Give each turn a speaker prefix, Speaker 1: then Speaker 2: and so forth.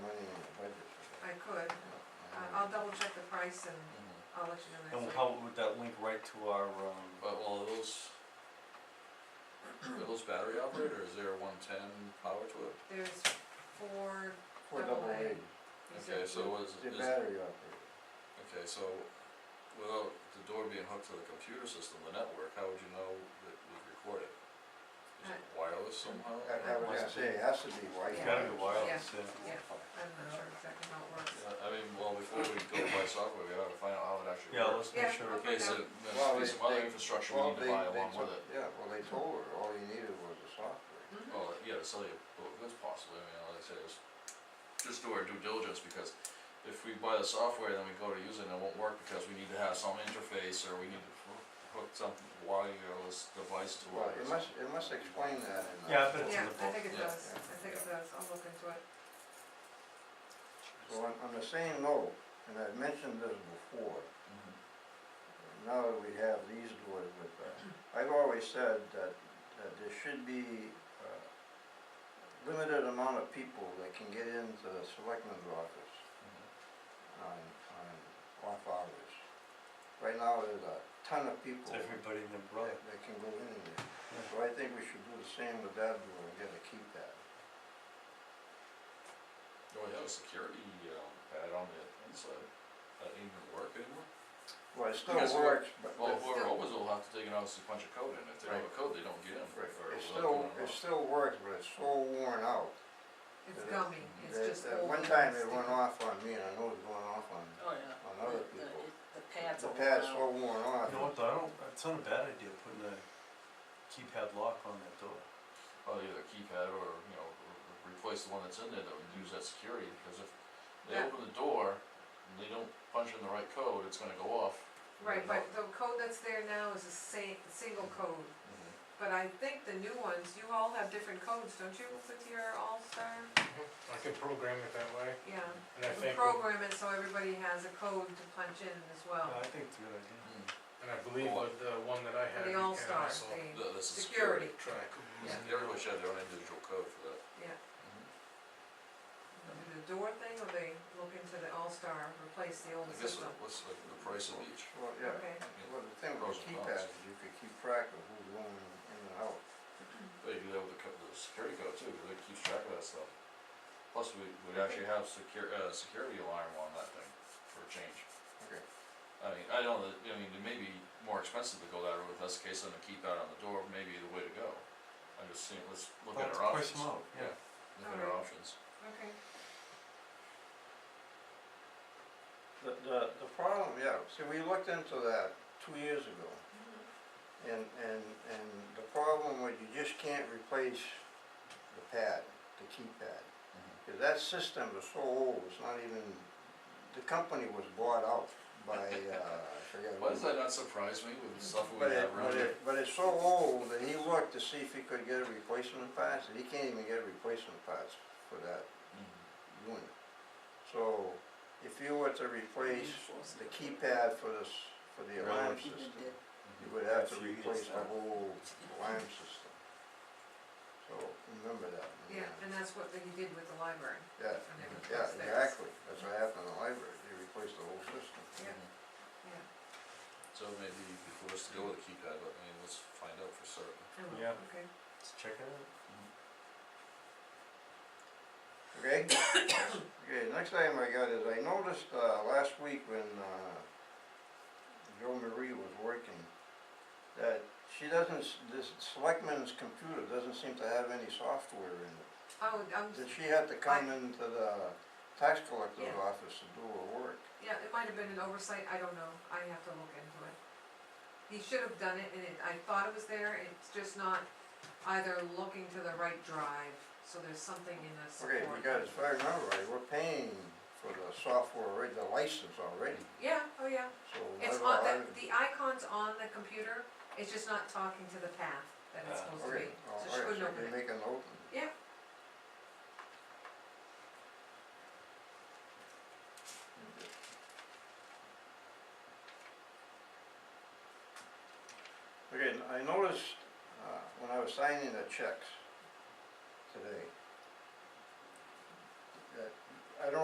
Speaker 1: Um, I'll double check the price and
Speaker 2: Mhm.
Speaker 1: I'll let you know next
Speaker 3: And
Speaker 1: week.
Speaker 3: how would that link right to our, um,
Speaker 2: But well, are those, are those battery operated or is there a one ten power to it?
Speaker 1: There's four,
Speaker 4: four
Speaker 1: Double
Speaker 4: double
Speaker 1: A.
Speaker 4: A,
Speaker 1: these
Speaker 2: Okay,
Speaker 1: are
Speaker 2: so
Speaker 1: blue.
Speaker 2: what is,
Speaker 4: they're
Speaker 2: is,
Speaker 4: battery operated.
Speaker 2: okay, so without the door being hooked to the computer system, the network, how would you know that we've recorded? Is it wireless somehow?
Speaker 4: Uh, I- I would
Speaker 3: Must
Speaker 4: say it has to be
Speaker 3: it's
Speaker 4: wired.
Speaker 3: gotta be wireless,
Speaker 1: Yeah.
Speaker 3: yeah.
Speaker 1: I'm not sure exactly how it works.
Speaker 2: Yeah, I mean, well, before we go buy software, we ought to find out how it actually
Speaker 3: Yeah,
Speaker 2: works.
Speaker 3: let's make
Speaker 1: Yeah.
Speaker 3: sure.
Speaker 2: Okay, so
Speaker 4: Well,
Speaker 2: there's
Speaker 4: they-
Speaker 2: some other
Speaker 4: they-
Speaker 2: infrastructure we
Speaker 4: Well,
Speaker 2: need
Speaker 4: they,
Speaker 2: to buy
Speaker 4: they
Speaker 2: along
Speaker 4: took,
Speaker 2: with it.
Speaker 4: yeah, well, they told her, all you needed was the software.
Speaker 1: Mhm.
Speaker 2: Well, yeah, Oh. to sell you, well, that's possible, I mean, like I say, it's just do our due diligence, because if we buy the software, then we go to use it and it won't work, because we need to have some interface, or we need to hook- hook some wireless device to
Speaker 4: Well,
Speaker 2: it.
Speaker 4: it must, it must explain that in the.
Speaker 3: Yeah, but it's in
Speaker 1: Yeah, I
Speaker 3: the book.
Speaker 1: think it
Speaker 2: Yeah.
Speaker 1: does, I think it does, I'll look into it.
Speaker 4: So on, on the same note, and I've mentioned this before,
Speaker 2: Mhm.
Speaker 4: now that we have these doors with, uh, I've always said that, that there should be, uh, limited amount of people that can get into the selectman's office
Speaker 2: mm-hmm.
Speaker 4: on, on off hours. Right now, there's a ton of people
Speaker 3: It's
Speaker 4: that,
Speaker 3: everybody and their brother.
Speaker 4: that can go in there, so I think we should do the same with that door and get a keypad.
Speaker 2: Oh, yeah, the security, um, pad on the inside, that didn't even work anymore?
Speaker 4: Well, it still
Speaker 2: Because what-
Speaker 4: works, but,
Speaker 2: Well,
Speaker 4: but-
Speaker 2: whoever opens will have to take it out, and see a bunch of code in, if they don't have a code, they don't get in.
Speaker 4: right,
Speaker 2: or
Speaker 4: it
Speaker 2: they'll
Speaker 4: still,
Speaker 2: go in
Speaker 4: it
Speaker 2: wrong.
Speaker 4: still works, but it's so worn out.
Speaker 1: It's
Speaker 4: Yeah.
Speaker 1: gummy, it's
Speaker 4: that-
Speaker 1: just
Speaker 4: that
Speaker 1: old.
Speaker 4: One
Speaker 1: and
Speaker 4: time it
Speaker 1: sticky.
Speaker 4: went off on me, and I know it's going off on,
Speaker 5: Oh, yeah.
Speaker 4: on other
Speaker 5: The- the-
Speaker 4: people.
Speaker 5: it- The pads
Speaker 4: The
Speaker 5: all
Speaker 4: pad's
Speaker 5: out.
Speaker 4: so worn
Speaker 3: You
Speaker 4: off,
Speaker 3: know what, though, I don't, it's not a bad idea putting a keypad lock on that door.
Speaker 2: well, either keypad or, you know, re- replace the one that's in there that would use that security, because if they
Speaker 1: Yeah.
Speaker 2: open the door and they don't punch in the right code, it's gonna go off.
Speaker 1: Right, but the code that's there now is a same, single code,
Speaker 2: Mhm.
Speaker 1: but I think the new ones, you all have different codes, don't you, with your All-Star?
Speaker 6: I can program it that way,
Speaker 1: Yeah,
Speaker 6: and I
Speaker 1: You
Speaker 6: think,
Speaker 1: program it so everybody has a code to punch in as well.
Speaker 3: Yeah, I think it's a good idea.
Speaker 2: Mm-hmm.
Speaker 6: and I believe with the one that I
Speaker 1: And
Speaker 6: have, you
Speaker 1: The
Speaker 6: can
Speaker 1: All-Star,
Speaker 6: also
Speaker 1: the,
Speaker 2: Th- This is
Speaker 1: security,
Speaker 2: security.
Speaker 6: track.
Speaker 1: Yeah.
Speaker 2: Everybody should have their own individual code for that.
Speaker 1: yeah. Mm-hmm. Do the door thing, or they look into the All-Star, replace the old
Speaker 2: I guess,
Speaker 1: system?
Speaker 2: what's the, the price of each?
Speaker 4: well, yeah,
Speaker 1: Okay,
Speaker 4: well, the thing
Speaker 2: Pros
Speaker 4: with
Speaker 2: and
Speaker 4: keypads,
Speaker 2: cons.
Speaker 4: is you could keep track of who's going in and out.
Speaker 2: They do that with the co- the security code too, because it keeps track of that stuff. Plus, we, we actually have secure, uh, security alarm on that thing for a change.
Speaker 4: Okay,
Speaker 2: I mean, I don't, know that- I mean, it may be more expensive to go that route, if that's the case, then to keep that on the door may be the way to go. I'm just seeing, let's look
Speaker 3: Well,
Speaker 2: at
Speaker 3: let's
Speaker 2: our
Speaker 3: price
Speaker 2: options.
Speaker 3: them out, yeah.
Speaker 2: Look at our
Speaker 1: Alright.
Speaker 2: options.
Speaker 1: okay.
Speaker 4: the, the, the problem, yeah, see, we looked into that two years ago, and, and, and the problem was you just can't replace the pad, the keypad. Cause that system is so old, it's not even, the company was bought out by, uh, I forget. who.
Speaker 2: Why does that not surprise me with the
Speaker 1: Mm-hmm.
Speaker 2: stuff we
Speaker 4: But it,
Speaker 2: have
Speaker 4: but
Speaker 2: around here?
Speaker 4: it, but it's so old that he looked to see if he could get a replacement parts, and he can't even get a replacement parts for that
Speaker 2: Mhm.
Speaker 4: unit. So, if you were to replace the keypad for this, for the
Speaker 5: Even
Speaker 4: alarm system,
Speaker 5: did-
Speaker 4: you would have to
Speaker 3: That's you,
Speaker 4: replace the
Speaker 3: yes.
Speaker 4: whole alarm system. So, remember that. when
Speaker 1: Yeah,
Speaker 4: you-
Speaker 1: and that's what he did with the library,
Speaker 4: Yeah,
Speaker 1: when they
Speaker 4: yeah,
Speaker 1: replaced theirs.
Speaker 4: exactly, that's what happened in the library, they replaced the whole system.
Speaker 1: Yeah.
Speaker 2: Mhm.
Speaker 1: Yeah,
Speaker 2: So maybe before us to go with a keypad, but I mean, let's find out for certain.
Speaker 1: I will,
Speaker 3: Yeah.
Speaker 1: okay.
Speaker 3: Let's check it out.
Speaker 1: Mm-hmm.
Speaker 4: Okay, okay, next item I got is I noticed, uh, last week when, uh, Joe Marie was working, that she doesn't, s- this selectman's computer doesn't seem to have any software in it.
Speaker 1: Oh, I'm,
Speaker 4: That she had to come
Speaker 1: I-
Speaker 4: into the tax collector's
Speaker 1: Yeah.
Speaker 4: office to do her work.
Speaker 1: yeah, it might have been an oversight, I don't know, I have to look into it. He should have done it, and it, I thought it was there, it's just not either looking to the right drive, so there's something in the
Speaker 4: Okay,
Speaker 1: support.
Speaker 4: because if I remember right, we're paying for the software, already, the license already,
Speaker 1: Yeah, oh yeah,
Speaker 4: so.
Speaker 1: it's
Speaker 4: whether
Speaker 1: on,
Speaker 4: I-
Speaker 1: the, the icon's on the computer, it's just not talking to the path that it's
Speaker 3: Ah,
Speaker 1: supposed to
Speaker 4: Okay,
Speaker 1: be,
Speaker 4: all
Speaker 1: so she
Speaker 4: right,
Speaker 1: couldn't
Speaker 4: so
Speaker 1: open
Speaker 4: we
Speaker 1: it.
Speaker 4: make a note.
Speaker 1: Yeah.
Speaker 4: Okay, n- I noticed, uh, when I was signing the checks,